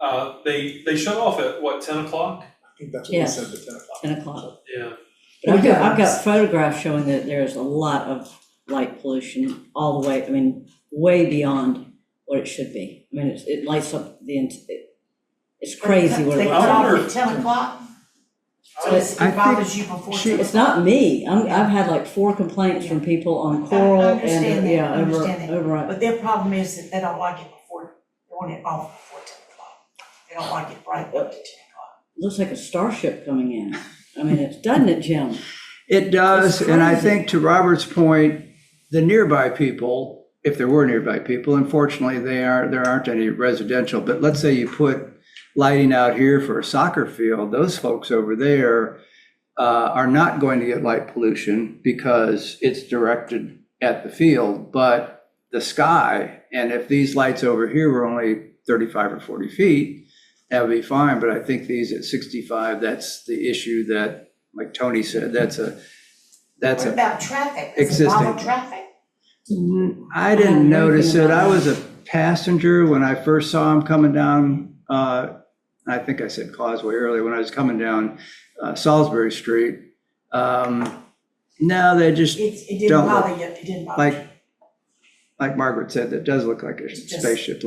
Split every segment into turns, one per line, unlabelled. Uh, they, they shut off at what, ten o'clock?
I think that's what we
Yes.
said, the ten o'clock.
ten o'clock.
Yeah,
But I've got, I've
Yes.
got photographs showing that there's a lot of light pollution all the way, I mean, way beyond what it should be. I mean, it's, it lights up the, ent- it, it's crazy what it
They
lights
I
up.
cut off
wonder-
at ten o'clock, so
I,
it's-
I
it
think
bothers you before
she-
ten
It's not me, I'm, I've had like four complaints from people on Coral
I
and,
understand
uh,
that,
yeah,
I
over,
understand that.
over.
But their problem is that they don't like it before, they want it off before ten o'clock. They don't like it bright up to ten o'clock.
looks like a starship coming in. I mean, it's, doesn't it, Jim?
It does,
It's
and I
crazy.
think to Robert's point, the nearby people, if there were nearby people, unfortunately, they are, there aren't any residential, but let's say you put lighting out here for a soccer field, those folks over there uh, are not going to get light pollution because it's directed at the field, but the sky, and if these lights over here were only thirty-five or forty feet, that would be fine, but I think these at sixty-five, that's the issue that, like Tony said, that's a, that's
What
a,
about traffic? Does it
existing.
bother traffic?
I
I don't
didn't
know
notice
anything
it,
about
I
that.
was a passenger when I first saw him coming down, uh, I think I said Causeway earlier, when I was coming down uh, Salisbury Street. Um, No, they just,
It, it
Don't
didn't
look.
bother you, it didn't bother you.
like, like Margaret said, that does look like a
It's just-
spaceship.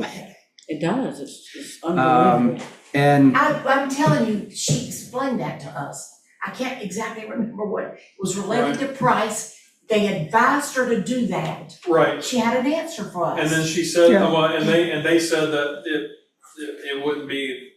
It does, it's, it's unbelievable.
And
I, I'm telling you, she explained that to us. I can't exactly remember what, it was related to price. They advised her to do that.
right.
She had an answer for us.
And then she said,
Yeah.
well, and they, and they said that it, it, it wouldn't be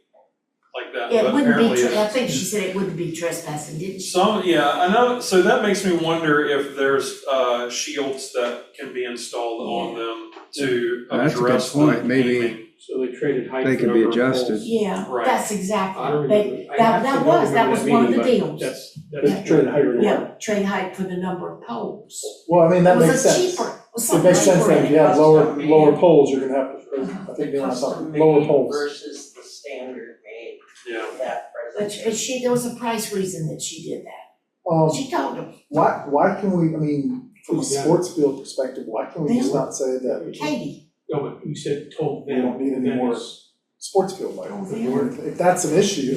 like that,
It
but
wouldn't
apparently
be,
it-
tra- I think she said it wouldn't be trespassing, didn't she?
Some, yeah, I know, so that makes me wonder if there's, uh, shields that can be installed on them to
That's a good
address the gaming.
point, maybe-
So they traded height
They
for
can be
number of
adjusted.
poles.
Yeah,
Right.
that's
I
exactly.
don't
They,
remember. I
that-
actually
that
don't
was- that
remember
was
that
one of
meeting,
the
but
deals.
That's,
Yeah.
that's trade height or
yeah, trade height for the number of poles.
Well, I mean, that makes
It was a
sense.
cheaper, it was
It
something
makes sense
cheaper
that if you have
and it
lower,
cost-
lower poles, you're gonna have, to- I think they want something, lower poles.
Versus the standard rate
Yeah,
that
But she- but she, there was a price reason that she did that.
Um,
She told them,
why, why can we, I mean, from a
Yeah.
sports field perspective, why can we just not say that
Katie,
No, but you said told
We
them.
don't need any
them
more.
is-
sports field light?
Oh,
If
yeah.
we're- If that's an issue,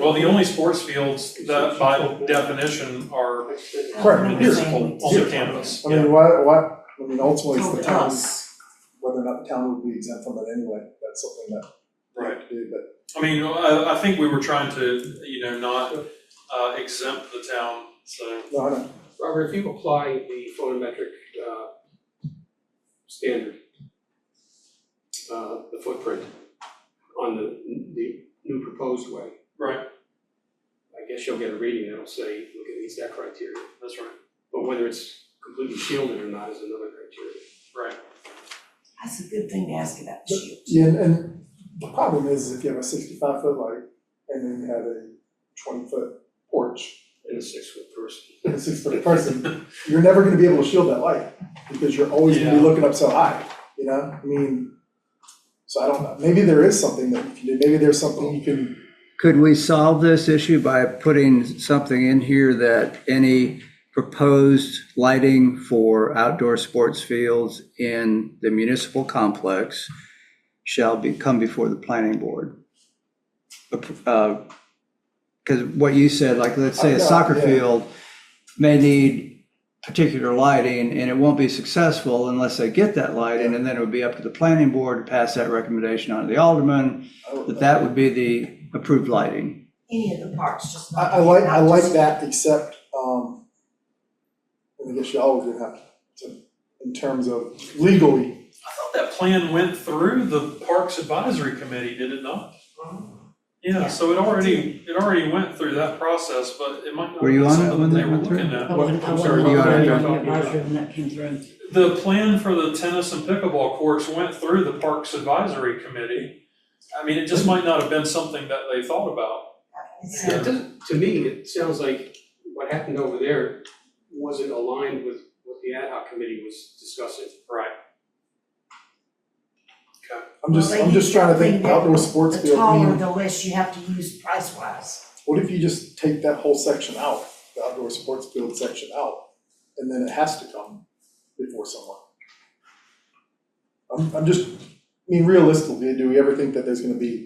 well, the only sports fields that by definition are
I
Correct.
don't know what
municipal
saying.
on the campus,
I
yeah.
mean, why, why, I mean, ultimately, it's
Told
the town,
us.
whether or not the town would be exempt from it anyway, that's something that we have to do, but
I mean, I, I think we were trying to, you know, not, uh, exempt the town, so,
no, I don't.
Robert, if you apply the photometric, uh, standard, uh, the footprint on the, the new proposed way,
right,
I guess you'll get a reading that'll say, look, it meets that criteria.
that's right,
But whether it's completely shielded or not is another criteria.
right.
That's a good thing to ask about the shield.
Yeah, and, and the problem is if you have a sixty-five foot light and then you have a twenty-foot porch,
And a six-foot person.
and a six-foot person, you're never gonna be able to shield that light, because you're always gonna be
Yeah.
looking up so high, you know, I mean, so I don't know, maybe there is something that you can do, maybe there's something you can,
could we solve this issue by putting something in here that any proposed lighting for outdoor sports fields in the municipal complex shall be, come before the planning board? Because what you said, like, let's say a soccer
Yeah.
field may need particular lighting, and it won't be successful unless they get that lighting, and then it would be up to the planning board to pass that recommendation on to the alderman,
I don't
that
know.
that would be the approved lighting.
Any of the parts, just
I,
not.
I like, I
not
like
just-
that, except, um, and I guess y'all would have to, in terms of legally,
I thought that plan went through the Parks Advisory Committee, did it not? Yeah,
Yeah.
so it already, it already went through that process, but it might not
Were you
be
on it
something
when
that they
that
were
went through?
looking
I
at.
wasn't, I
I'm
wasn't
sorry,
on
you
the
are-
advisory when that came through.
The plan for the tennis and pickleball courts went through the Parks Advisory Committee. I mean, it just might not have been something that they thought about.
It's-
It doesn't, to me, it sounds like what happened over there wasn't aligned with what the ad hoc committee was discussing.
Right.
I'm just,
Well, they
I'm just
need
trying to think
something that-
outdoor sports
The
field, I mean,
taller the less you have to use price wise.
What if you just take that whole section out, the outdoor sports field section out, and then it has to come before someone? I'm, I'm just, I mean, realistically, do we ever think that there's gonna be